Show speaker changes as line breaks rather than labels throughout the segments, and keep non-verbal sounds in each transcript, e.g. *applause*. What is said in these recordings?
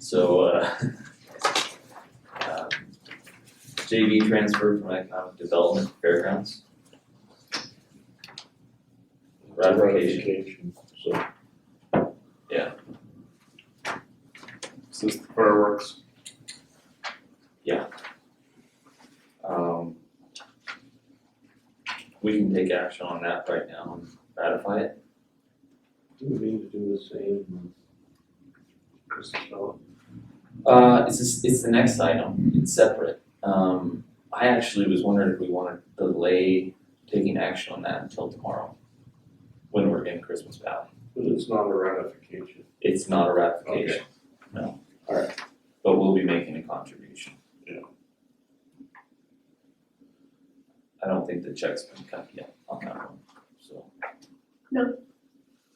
So, uh, *laughs* um, JV transfer from economic development fairgrounds. Ratification,
Ratification, so.
Yeah.
Is this the fireworks?
um. We can take action on that right now and ratify it.
Do we need to do the same? Chris Bell?
Uh, it's this, it's the next item, it's separate. Um, I actually was wondering if we wanna delay taking action on that until tomorrow. When we're in Christmas Valley.
But it's not a ratification.
It's not a ratification. No. Alright. But we'll be making a contribution.
Yeah.
I don't think the check's been cut yet on that one, so.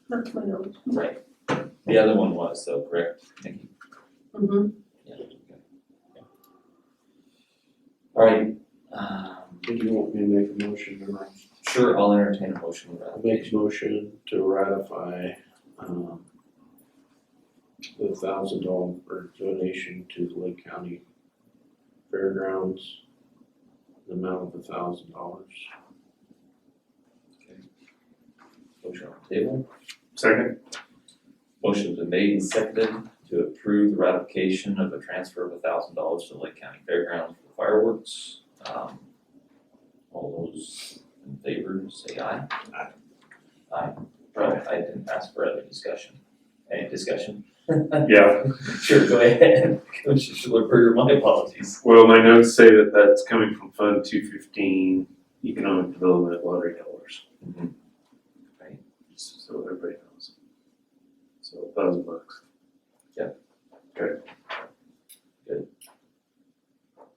That's my note.
Right. The other one was, so correct, Nikki?
Mm-hmm.
Yeah. Alright, um,
Did you want me to make a motion or not?
sure, I'll entertain a motion uh, with
I
that.
make a motion to ratify, um, the thousand dollar donation to the Lake County Fairgrounds, the amount of a thousand dollars.
Motion on the table.
Second.
Motion's been made and seconded to approve the ratification of a transfer of a thousand dollars to Lake County Fairgrounds for fireworks. Um, all those in favor, say aye.
Aye.
Aye. Oh, I didn't ask for other discussion. Any discussion? *laughs*
Yeah,
Sure, go ahead. *laughs* Commissioner Schiller, my apologies.
well, my notes say that that's coming from Fund two fifteen, economic development lottery dollars,
Mhm.
just so everybody knows. So a thousand bucks.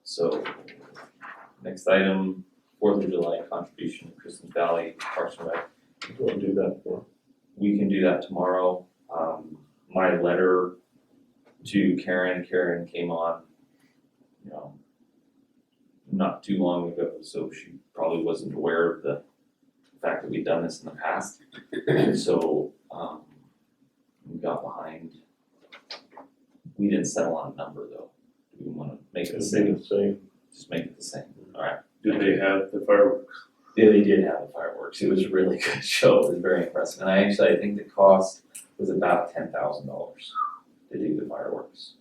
So, next item, Fourth of July contribution to Kristen Valley Parks and Rec.
We'll do that for.
we can do that tomorrow. Um, my letter to Karen, Karen came on, you know, not too long ago, so she probably wasn't aware of the fact that we'd done this in the past. And so, um, we got behind. We didn't settle on a number though. Do we wanna make it the same?
Same.
Just make it the same.
Do they have the fireworks?
Yeah, they did have the fireworks. It was a really *laughs* good show. It was very impressive. And I actually, I think the cost was about ten thousand dollars to do the fireworks.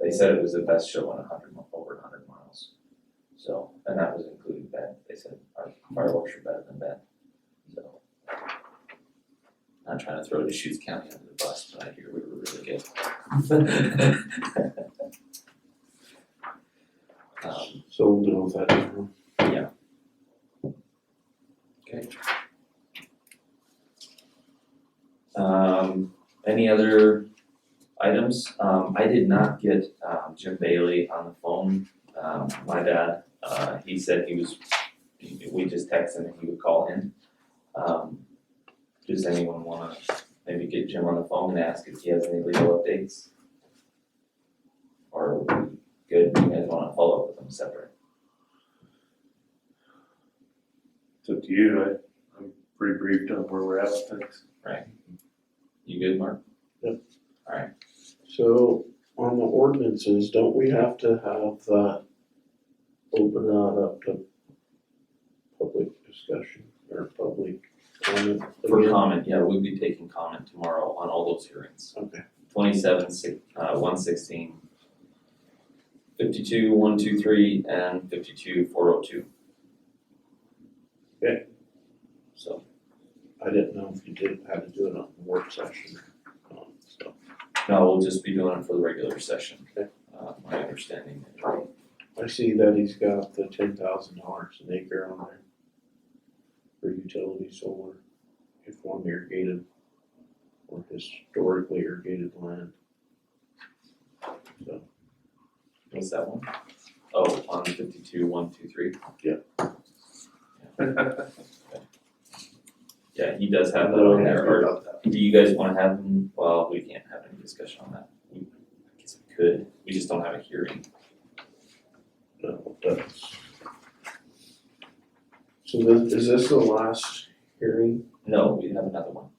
They said it was the best show on a hundred, mi- over a hundred miles. So, and that was including Ben. They said our fireworks were better than Ben. So. Not trying to throw the Deschutes County under the bus, but I hear we were really good. *laughs* Um,
So we'll deal with that tomorrow.
Um, any other items? Um, I did not get, um, Jim Bailey on the phone, um, my dad, uh, he said he was, we just texted him and he would call in. Um, does anyone wanna maybe get Jim on the phone and ask if he has any legal updates? Or are we good, you guys wanna follow up with him separate?
It's up to you, I, I'm pretty briefed on where we're at with things.
You good, Mark?
So on the ordinances, don't we have to have that open that up to public discussion or public comment?
For comment, yeah, we'll be taking comment tomorrow on all those hearings.
Okay,
twenty-seven, six, uh, one sixteen. Fifty-two, one, two, three, and fifty-two, four oh two.
Okay.
So,
I didn't know if you did, had to do it on the work session. um, so.
no, we'll just be doing it for the regular session.
Okay.
Uh, my understanding.
I see that he's got the ten thousand dollars an acre on there for utility solar, if one irrigated or historically irrigated land. So,
What's that one? Oh, on fifty-two, one, two, three?
Yeah.
Yeah, he does have that
I don't
on there,
have
or
about that.
Do you guys wanna have, them? well, we can't have any discussion on that. We, I guess we could, we just don't have a hearing.
No, that's. So this, is this the last hearing?
No, we have another one.